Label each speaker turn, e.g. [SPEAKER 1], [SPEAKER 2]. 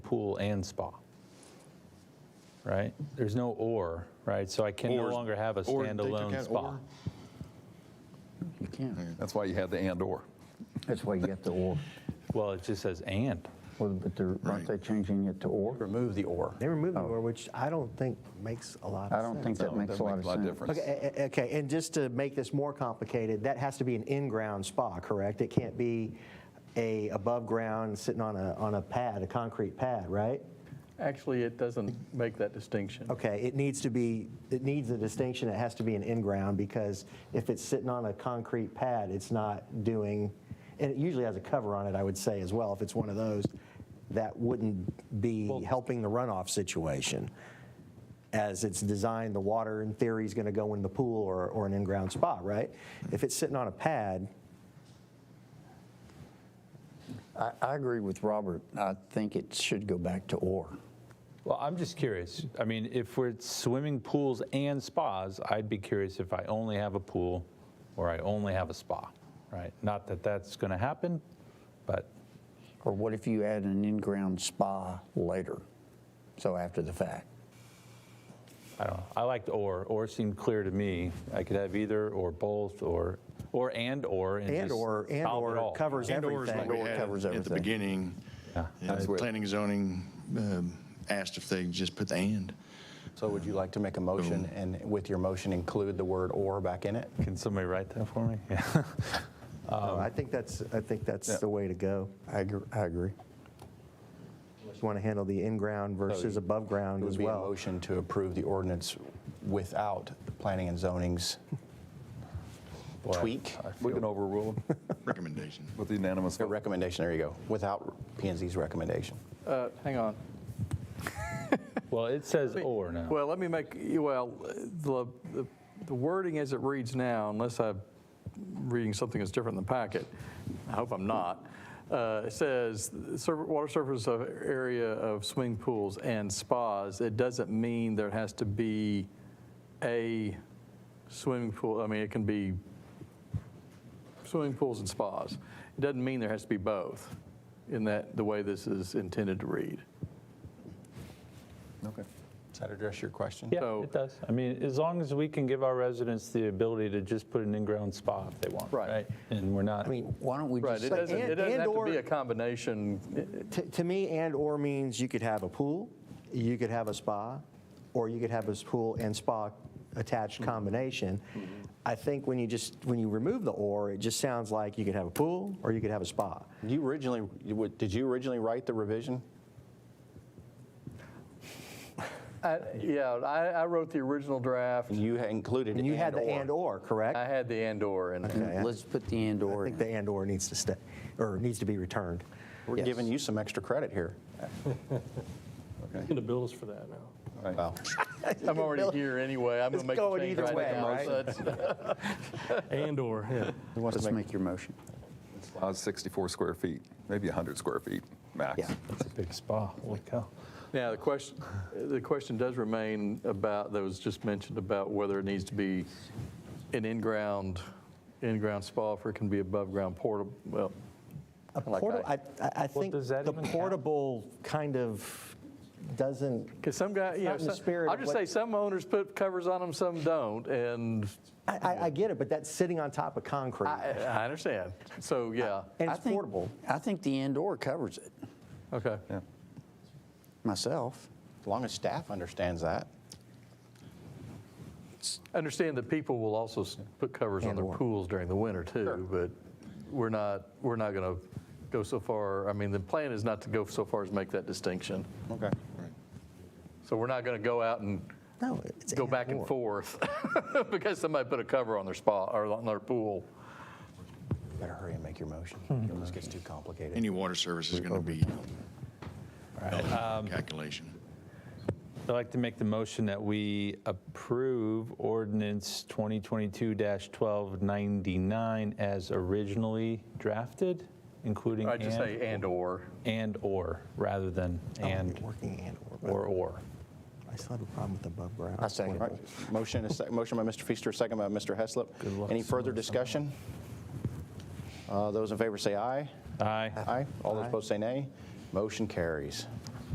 [SPEAKER 1] pool and spa. Right? There's no or, right? So I can no
[SPEAKER 2] Or-
[SPEAKER 1] longer have a
[SPEAKER 2] or they took
[SPEAKER 1] standalone
[SPEAKER 2] out
[SPEAKER 1] spa.
[SPEAKER 2] or.
[SPEAKER 3] You can't.
[SPEAKER 2] That's why you had the and/or.
[SPEAKER 3] That's why you get the or.
[SPEAKER 1] Well, it just says and.
[SPEAKER 3] Well, But they're,
[SPEAKER 2] Right.
[SPEAKER 3] aren't they changing it to or?
[SPEAKER 4] Remove the or.
[SPEAKER 5] They were moving more, which I don't think makes a lot of sense.
[SPEAKER 3] Oh. I don't think that
[SPEAKER 2] No,
[SPEAKER 3] makes a lot of sense.
[SPEAKER 2] difference.
[SPEAKER 5] Okay, a- a- okay, and just to make this more complicated, that has to be an in-ground spa, correct? It can't be a above-ground sitting on a, on a pad, a concrete pad, right?
[SPEAKER 6] Actually, it doesn't make that distinction.
[SPEAKER 5] Okay, it needs to be, it needs a distinction, it has to be an in-ground, because if it's sitting on a concrete pad, it's not doing, and it usually has a cover on it, I would say as well, if it's one of those, that wouldn't be helping the runoff situation. As it's designed, the water in theory is gonna go in the pool or, or an in-ground spa, right? If it's sitting on a pad,
[SPEAKER 3] I, I agree with Robert. I think it should go back to or.
[SPEAKER 1] Well, I'm just curious. I mean, if we're swimming pools and spas, I'd be curious if I only have a pool or I only have a spa, right? Not that that's going to happen, but
[SPEAKER 3] Or what if you add an in-ground spa later? So after the fact.
[SPEAKER 1] I don't know. I liked or. Or seemed clear to me. I could have either or both or or and or and, just
[SPEAKER 5] and/or,
[SPEAKER 1] solve it all.
[SPEAKER 5] and/or covers
[SPEAKER 2] And/or is
[SPEAKER 5] everything.
[SPEAKER 2] what we
[SPEAKER 3] Or
[SPEAKER 2] had
[SPEAKER 3] covers
[SPEAKER 2] at the
[SPEAKER 3] everything.
[SPEAKER 2] beginning.
[SPEAKER 1] Yeah,
[SPEAKER 2] You know,
[SPEAKER 4] that's where-
[SPEAKER 2] Planning and zoning um, asked if they just put the and.
[SPEAKER 4] So would you like to make a motion and with your motion include the word or back in it?
[SPEAKER 1] Can somebody write that for me? Yeah.
[SPEAKER 4] Um,
[SPEAKER 5] No, I think that's, I think that's the way to go.
[SPEAKER 3] I agree. I agree.
[SPEAKER 5] You want to handle the in-ground versus above-ground
[SPEAKER 4] Oh, It
[SPEAKER 5] as
[SPEAKER 4] would be a
[SPEAKER 5] well.
[SPEAKER 4] motion to approve the ordinance without planning and zoning's
[SPEAKER 1] Boy, I-
[SPEAKER 4] tweak,
[SPEAKER 7] We can overrule them
[SPEAKER 2] Recommendation.
[SPEAKER 7] with the unanimous
[SPEAKER 4] their
[SPEAKER 7] vote.
[SPEAKER 4] recommendation, there you go, without P and Z's recommendation.
[SPEAKER 6] Uh, Hang on.
[SPEAKER 1] Well, it says or now.
[SPEAKER 6] Well, let me make, well, the the- the wording as it reads now, unless I'm reading something that's different in the packet, I hope I'm not, uh, it says, "Sur- water surface of area of swimming pools and spas. It doesn't mean there has to be a swimming pool, I mean, it can be swimming pools and spas. It doesn't mean there has to be both in that, the way this is intended to read.
[SPEAKER 4] Okay. Does that address your question?
[SPEAKER 1] yeah,
[SPEAKER 6] so-
[SPEAKER 1] it does. I mean, as long as we can give our residents the ability to just put an in-ground spa if they want,
[SPEAKER 6] Right.
[SPEAKER 1] And we're not.
[SPEAKER 3] I mean, why don't we
[SPEAKER 6] Right,
[SPEAKER 3] just
[SPEAKER 6] it
[SPEAKER 3] say
[SPEAKER 6] doesn't,
[SPEAKER 5] and-
[SPEAKER 6] it doesn't have to
[SPEAKER 5] and/or-
[SPEAKER 6] be a combination.
[SPEAKER 5] To to me, and/or means you could have a pool, you could have a spa, or you could have a pool and spa
[SPEAKER 4] Mm-hmm.
[SPEAKER 5] attached combination. I think when you just, when you remove the "or," it just sounds like you could have a pool or you could have a spa.
[SPEAKER 4] You originally, you would- did you originally write the revision?
[SPEAKER 6] I- Yeah, I, I wrote the original draft.
[SPEAKER 4] You had included
[SPEAKER 5] And you had the
[SPEAKER 4] and/or.
[SPEAKER 5] and/or,
[SPEAKER 6] I
[SPEAKER 5] correct?
[SPEAKER 6] had the and/or in there.
[SPEAKER 3] Let's put the and
[SPEAKER 5] I
[SPEAKER 3] or.
[SPEAKER 5] think
[SPEAKER 3] in.
[SPEAKER 5] the and/or needs to stay, or needs to be returned.
[SPEAKER 4] We're giving you some extra credit here.
[SPEAKER 8] going to bill us for that now.
[SPEAKER 4] Wow.
[SPEAKER 6] I'm already here anyway, I'm
[SPEAKER 5] It's
[SPEAKER 6] going to
[SPEAKER 5] going
[SPEAKER 6] make the change
[SPEAKER 5] either
[SPEAKER 6] right
[SPEAKER 5] way,
[SPEAKER 6] now.
[SPEAKER 5] right?
[SPEAKER 6] so it's-
[SPEAKER 8] And/or, yeah.
[SPEAKER 4] Who wants to
[SPEAKER 3] Let's
[SPEAKER 4] make-
[SPEAKER 3] make your motion.
[SPEAKER 7] Spas 64 square feet, maybe 100 square feet max.
[SPEAKER 3] Yeah.
[SPEAKER 1] It's a big spa. Holy cow.
[SPEAKER 6] Now, the question, the question does remain about, that was just mentioned about whether it needs to be an in-ground, in-ground spa, if it can be above-ground portable, well,
[SPEAKER 5] A
[SPEAKER 6] Like
[SPEAKER 5] porta- I
[SPEAKER 6] I-
[SPEAKER 5] I- I think
[SPEAKER 1] does that
[SPEAKER 5] the
[SPEAKER 1] even count?
[SPEAKER 5] portable kind of doesn't,
[SPEAKER 6] because some guy, you
[SPEAKER 5] Not
[SPEAKER 6] know,
[SPEAKER 5] in the
[SPEAKER 6] some-
[SPEAKER 5] spirit
[SPEAKER 6] I'll
[SPEAKER 5] of
[SPEAKER 6] just
[SPEAKER 5] what-
[SPEAKER 6] say, some owners put covers on them, some don't, and
[SPEAKER 5] I- I I get it, but that's sitting on top of concrete.
[SPEAKER 6] I, I understand. So, yeah,
[SPEAKER 5] And
[SPEAKER 3] I
[SPEAKER 5] it's
[SPEAKER 3] think-
[SPEAKER 5] portable.
[SPEAKER 3] I think the and or covers it
[SPEAKER 6] okay.
[SPEAKER 3] myself.
[SPEAKER 4] As long as staff understands that.
[SPEAKER 6] Understand that people will also s- put covers on their pools during the winter too, but we're not, we're not going to go so far, I mean, the plan is not to go so far as make that distinction.
[SPEAKER 4] Okay.
[SPEAKER 6] So we're not going to go out and
[SPEAKER 5] No, it's
[SPEAKER 6] go back and
[SPEAKER 5] or.
[SPEAKER 6] forth because somebody put a cover on their spa, or on their pool.
[SPEAKER 4] Better hurry and make your motion. This gets too complicated.
[SPEAKER 2] Any water service is going to be calculation.
[SPEAKER 1] I'd like to make the motion that we approve ordinance 2022-1299 as originally drafted, including
[SPEAKER 6] I just say
[SPEAKER 1] and,
[SPEAKER 6] Oh, and/or.
[SPEAKER 1] and/or, rather than and,
[SPEAKER 5] Working and/or. but
[SPEAKER 1] or, or.
[SPEAKER 5] I still have a problem with above ground.
[SPEAKER 3] I second
[SPEAKER 4] All right. Motion, is sec- motion by Mr. Feaster, second by Mr. Heslop. Any further discussion? Uh, Those in favor say aye.
[SPEAKER 1] Aye.
[SPEAKER 4] Aye. All those opposed say nay. Motion carries.